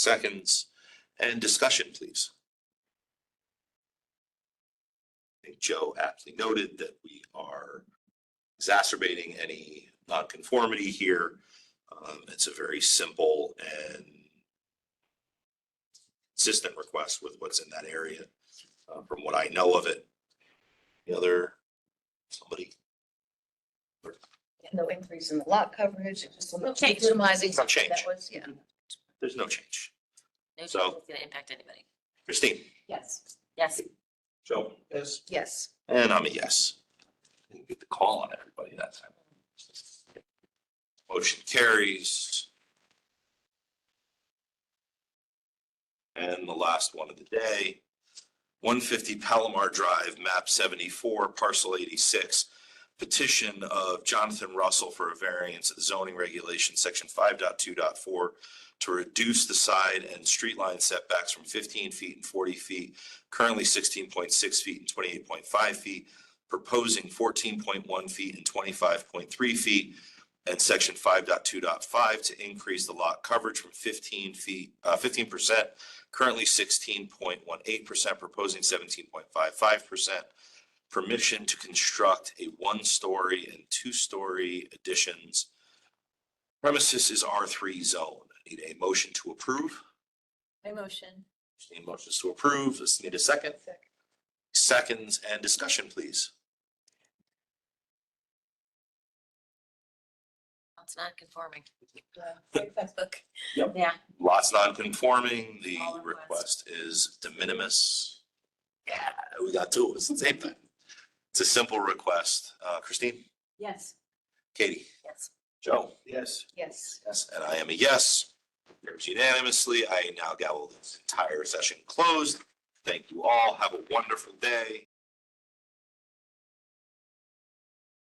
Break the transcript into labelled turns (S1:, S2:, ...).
S1: seconds. And discussion, please. I think Joe aptly noted that we are exacerbating any nonconformity here. Um, It's a very simple and consistent request with what's in that area, uh, from what I know of it. The other, somebody,
S2: No increase in the lot coverage, it's just.
S3: No change.
S2: Minimizing.
S1: No change.
S2: That was, yeah.
S1: there's no change.
S3: No change is
S1: So-
S3: gonna impact anybody.
S1: Christine?
S2: Yes.
S3: Yes,
S1: Joe? Yes.
S2: Yes.
S1: And I'm a yes. Didn't get the call on everybody that time. Motion carries. And the last one of the day, one fifty Palomar Drive, map seventy-four, parcel eighty-six. Petition of Jonathan Russell for a variance of the zoning regulation, section 5.2.4, to reduce the side and street line setbacks from fifteen feet and forty feet currently sixteen point six feet and twenty-eight point five feet, proposing fourteen point one feet and twenty-five point three feet, and section 5.2.5 to increase the lot coverage from fifteen feet, uh, fifteen percent, currently sixteen point one eight percent, proposing seventeen point five five percent. Permission to construct a one-story and two-story additions. Premises is R three zone. I Need a motion to approve?
S3: I motion.
S1: Just Need motions to approve. Let's need a second. Seconds and discussion, please.
S3: It's not conforming.
S2: book.
S3: Yeah.
S1: Lots non-conforming, the
S3: All in
S1: request is de minimis. Yeah, we got two, it's the same thing. It's a simple request. Uh, Christine,
S3: Yes.
S1: Katie,
S3: Yes.
S1: Joe? Yes.
S2: Yes.
S1: Yes, and I am a yes. Carries unanimously. I now gavel this entire session closed. Thank you all. Have a wonderful day.